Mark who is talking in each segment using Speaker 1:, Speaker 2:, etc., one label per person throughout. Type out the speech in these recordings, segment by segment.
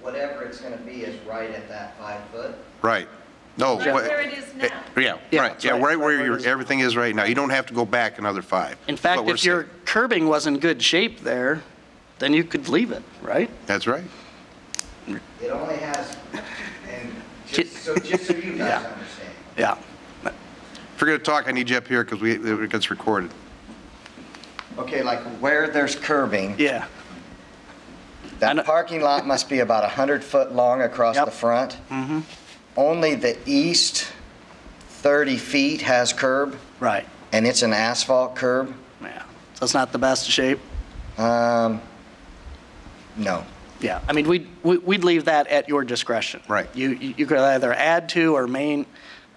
Speaker 1: whatever it's gonna be is right at that five foot.
Speaker 2: Right. No.
Speaker 3: Right
Speaker 2: what-
Speaker 3: where it is
Speaker 2: eh,
Speaker 3: now.
Speaker 2: Yeah,
Speaker 4: Yeah,
Speaker 2: right,
Speaker 4: that's
Speaker 2: yeah,
Speaker 4: right.
Speaker 2: right
Speaker 4: Right
Speaker 2: where
Speaker 4: where it
Speaker 2: your,
Speaker 4: is now.
Speaker 2: everything is right now. You don't have to go back another five.
Speaker 4: In
Speaker 2: That's
Speaker 4: fact,
Speaker 2: what we're
Speaker 4: if your
Speaker 2: saying.
Speaker 4: curbing was in good shape there, then you could leave it, right?
Speaker 2: That's right.
Speaker 1: It only has, and just, so just so you guys
Speaker 4: Yeah.
Speaker 1: understand.
Speaker 4: Yeah.
Speaker 2: Forget to talk, I need you up here because we, it gets recorded.
Speaker 1: Okay, like where there's curving,
Speaker 4: Yeah. I know-
Speaker 1: that parking lot must be about 100 foot long across
Speaker 4: Yep. Mm-hmm.
Speaker 1: the front. Only the east 30 feet has curb,
Speaker 4: Right.
Speaker 1: and it's an asphalt curb.
Speaker 4: Yeah. So it's not the best shape.
Speaker 1: Um, No.
Speaker 4: Yeah. I mean, we'd, we- we'd leave that at your discretion.
Speaker 2: Right.
Speaker 4: You, you you could either add to or main,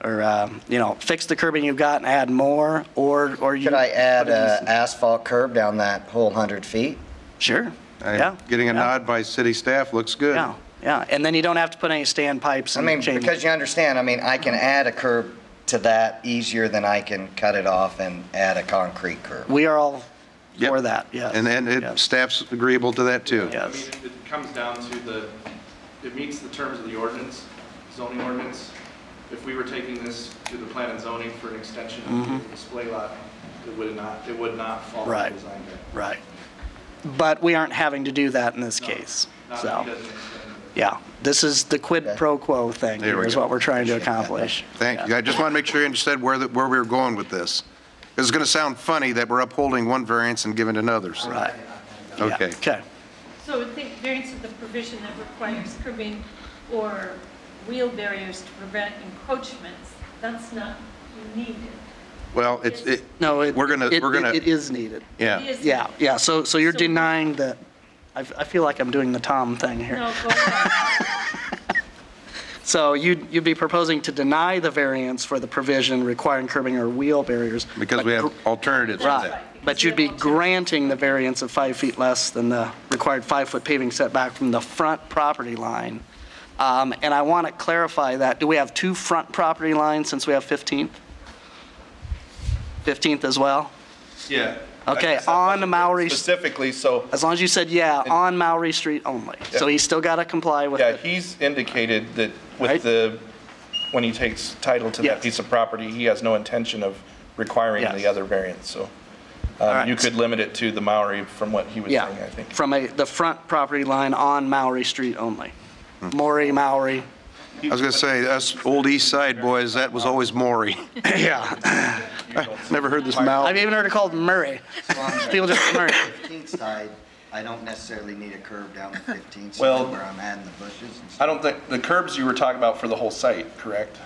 Speaker 4: or, um, you know, fix the curbing you've got and add more, or, or you.
Speaker 1: Could I add
Speaker 4: put in
Speaker 1: a
Speaker 4: some-
Speaker 1: asphalt curb down that whole 100 feet?
Speaker 4: Sure. Yeah.
Speaker 2: I'm Getting a
Speaker 4: Yeah.
Speaker 2: nod by city staff, looks good.
Speaker 4: Yeah, yeah. And then you don't have to put any standpipes
Speaker 1: I
Speaker 4: and
Speaker 1: mean,
Speaker 4: chain.
Speaker 1: because you understand, I mean, I can add a curb to that easier than I can cut it off and add a concrete curb.
Speaker 4: We are all
Speaker 2: Yep.
Speaker 4: for that, yes.
Speaker 2: And then
Speaker 4: yes.
Speaker 2: it, staff's agreeable to that too.
Speaker 4: Yeah.
Speaker 5: I mean, it- it comes down to the, it meets the terms of the ordinance, zoning ordinance. If we were taking this to the plan and zoning for an extension of the display lot, it would not, it would not fall under
Speaker 4: Mm-hmm. Right.
Speaker 5: design guide.
Speaker 4: Right. But we aren't having to do that in this
Speaker 5: No,
Speaker 4: case,
Speaker 5: Not if he
Speaker 4: so,
Speaker 5: doesn't extend it.
Speaker 4: yeah. This is the quid
Speaker 1: Okay.
Speaker 4: pro quo thing,
Speaker 2: There we
Speaker 4: here is
Speaker 2: go.
Speaker 4: what we're trying to
Speaker 1: Appreciate that.
Speaker 4: accomplish.
Speaker 2: Thank you. I just want to make sure you understood where, the- where we were going with this. It's going to sound funny that we're upholding one variance and giving it another's.
Speaker 4: Right. Yeah.
Speaker 2: Okay.
Speaker 4: Okay,
Speaker 3: So I think variance is the provision that requires curbing or wheel barriers to prevent encroachments. That's not needed.
Speaker 2: Well, it's, it,
Speaker 4: no, it.
Speaker 2: we're going to,
Speaker 4: it-
Speaker 2: we're going
Speaker 4: It
Speaker 2: to,
Speaker 4: is needed.
Speaker 2: yeah.
Speaker 3: It is
Speaker 4: Yeah,
Speaker 3: needed.
Speaker 4: yeah, so, so you're
Speaker 3: So-
Speaker 4: denying that, I, I feel like I'm doing the Tom thing here.
Speaker 3: No, go ahead.
Speaker 4: So you'd, you'd be proposing to deny the variance for the provision requiring curbing or wheel barriers.
Speaker 2: Because
Speaker 4: but
Speaker 2: we
Speaker 4: gr-
Speaker 2: have alternatives to
Speaker 4: Right,
Speaker 2: that.
Speaker 4: but you'd be granting the variance of five feet less than the required five-foot paving setback from the front property line. Um, And I want to clarify that, do we have two front property lines since we have 15th? 15th as well?
Speaker 6: Yeah.
Speaker 4: Okay,
Speaker 6: I just have
Speaker 4: on
Speaker 6: to-
Speaker 4: Maori-
Speaker 6: Specifically, so,
Speaker 4: As long as you said, yeah, on Maury Street only. So he's still got to comply with
Speaker 6: yeah,
Speaker 4: it.
Speaker 6: he's indicated that
Speaker 4: Right.
Speaker 6: with the, when he takes title to
Speaker 4: Yes.
Speaker 6: that piece of property, he has no intention of requiring
Speaker 4: Yes.
Speaker 6: the other variance, so.
Speaker 4: right.
Speaker 6: um, You could limit it to the Maori from what he was saying,
Speaker 4: Yeah,
Speaker 6: I think.
Speaker 4: from a, the front property line on Maury Street only.
Speaker 6: Hmm.
Speaker 4: Maury, Maury,
Speaker 2: I was going to say, us old east side boys, that was always Maury.
Speaker 4: yeah.
Speaker 2: Never heard this mouth.
Speaker 4: I've even heard it called Murray. People just, Murray.
Speaker 1: 15th side, I don't necessarily need a curb down the 15th
Speaker 6: Well-
Speaker 1: side where I'm adding the bushes and
Speaker 6: I
Speaker 1: stuff.
Speaker 6: don't think, the curbs you were talking about for the whole site, correct?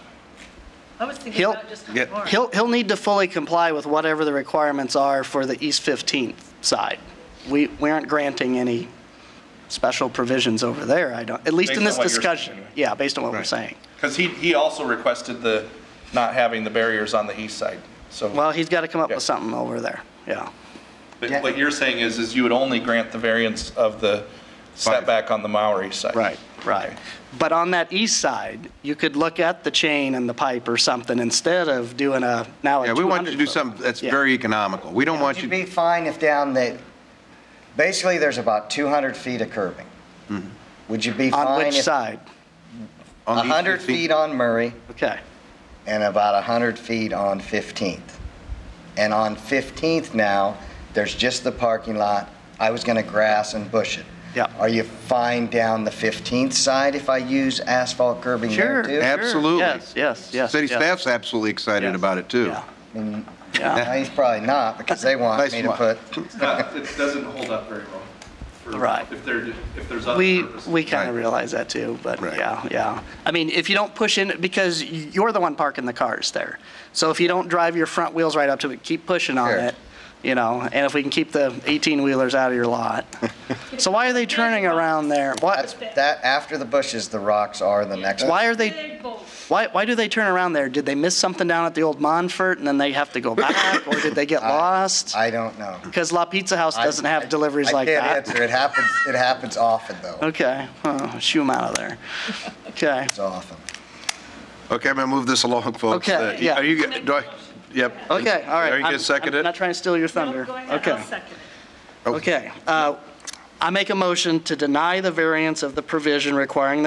Speaker 3: I was thinking
Speaker 4: He'll-
Speaker 3: about just
Speaker 2: yeah,
Speaker 3: one more.
Speaker 4: He'll, he'll need to fully comply with whatever the requirements are for the East 15th side. We, we aren't granting any special provisions over there, I don't, at least in
Speaker 6: Based on
Speaker 4: this
Speaker 6: what you're saying,
Speaker 4: discussion.
Speaker 6: anyway.
Speaker 4: Yeah, based on what we're
Speaker 2: Right.
Speaker 4: saying.
Speaker 6: Because he, he also requested the, not having the barriers on the east side, so.
Speaker 4: Well, he's got to come up
Speaker 6: Yeah.
Speaker 4: with something over there, yeah.
Speaker 6: But what you're saying is, is you would only grant the variance of the setback on the Maori side.
Speaker 4: Right, right. But on that east side, you could look at the chain and the pipe or something instead of doing a, now a 200
Speaker 2: Yeah, we want you to do
Speaker 4: foot.
Speaker 2: something that's
Speaker 4: Yeah.
Speaker 2: very economical. We don't want
Speaker 1: Would
Speaker 2: you,
Speaker 1: you be fine if down the, basically, there's about 200 feet of curbing? Would you be fine?
Speaker 4: On which
Speaker 1: if-
Speaker 4: side?
Speaker 2: on the east
Speaker 1: 100
Speaker 2: 15
Speaker 1: feet on Murray
Speaker 4: Okay,
Speaker 1: and about 100 feet on 15th. And on 15th now, there's just the parking lot. I was going to grass and bush it.
Speaker 4: Yeah.
Speaker 1: Are you fine down the 15th side if I use asphalt curbing there
Speaker 4: sure.
Speaker 1: too?
Speaker 4: sure.
Speaker 2: Absolutely.
Speaker 4: Yes, yes, yes.
Speaker 2: City
Speaker 4: yes.
Speaker 2: staff's absolutely excited
Speaker 4: Yes.
Speaker 2: about it too.
Speaker 4: Yeah. Yeah.
Speaker 1: No, He's probably not, because they want
Speaker 2: Nice
Speaker 1: me to
Speaker 2: one.
Speaker 1: put,
Speaker 5: It's not, it doesn't hold up very well. for-
Speaker 4: Right.
Speaker 5: If there, if there's other
Speaker 1: Uh,
Speaker 4: We,
Speaker 5: purposes.
Speaker 4: we kind
Speaker 2: Right.
Speaker 4: of realize that too, but
Speaker 2: Right.
Speaker 4: yeah, yeah. I mean, if you don't push in, because you're the one parking the cars there. So if you don't drive your front wheels right up to it, keep pushing on
Speaker 1: Sure.
Speaker 4: it, you know, and if we can keep the 18-wheelers out of your lot. So why are they turning around there?
Speaker 1: that's,
Speaker 4: What,
Speaker 1: that, after the bushes, the rocks are the next.
Speaker 4: why are they,
Speaker 3: They're both.
Speaker 4: why, why do they turn around there? Did they miss something down at the old Monfort and then they have to go back? Or did they get lost?
Speaker 1: I don't know.
Speaker 4: Because La Pizza House doesn't have deliveries like
Speaker 1: I can't
Speaker 4: that.
Speaker 1: answer. It happens, it happens often, though.
Speaker 4: Okay, huh, shoo 'em out of there. Okay.
Speaker 1: It's often.
Speaker 2: Okay, I'm going to move this along, folks.
Speaker 4: Okay,
Speaker 2: Uh,
Speaker 4: yeah.
Speaker 2: Are you, do I, yep.
Speaker 4: Okay, all right.
Speaker 2: Are you
Speaker 4: I'm-
Speaker 2: going to second
Speaker 4: I'm not
Speaker 2: it?
Speaker 4: trying to steal your
Speaker 3: No,
Speaker 4: thunder.
Speaker 3: go ahead, I'll
Speaker 4: Okay,
Speaker 3: second it.
Speaker 2: Oh.
Speaker 4: okay. Uh, I make a motion to deny the variance of the provision requiring the